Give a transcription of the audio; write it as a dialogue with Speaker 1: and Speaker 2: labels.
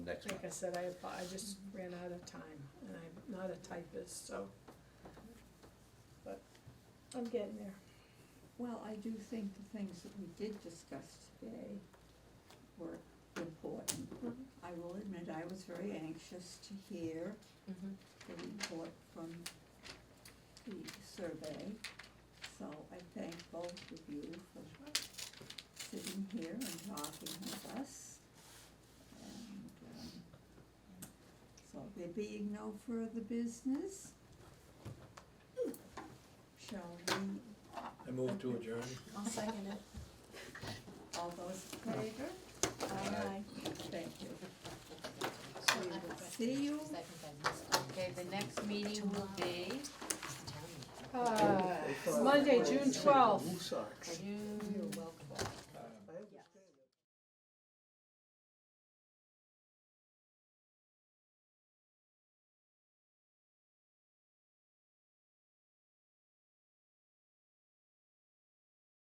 Speaker 1: next
Speaker 2: Like I
Speaker 1: month.
Speaker 2: said, I, apo- I just ran out of time, and I'm not a typist, so. But I'm getting there.
Speaker 3: Well, I do think the things that we did discuss today were important.
Speaker 2: Mhm.
Speaker 3: I will admit, I was very anxious to hear
Speaker 4: Mm-hmm.
Speaker 3: the report from the survey. So I thank both of you for sitting here and talking with us. And, um, so there being no further business, shall we
Speaker 5: I move to adjourn.
Speaker 6: I'll second it.
Speaker 3: All those in favor?
Speaker 1: Aye.
Speaker 3: Thank you.
Speaker 6: So
Speaker 3: We
Speaker 6: I
Speaker 3: will
Speaker 6: have a
Speaker 3: see you.
Speaker 4: Okay, the next meeting will be
Speaker 2: Uh, Monday, June twelfth,
Speaker 4: June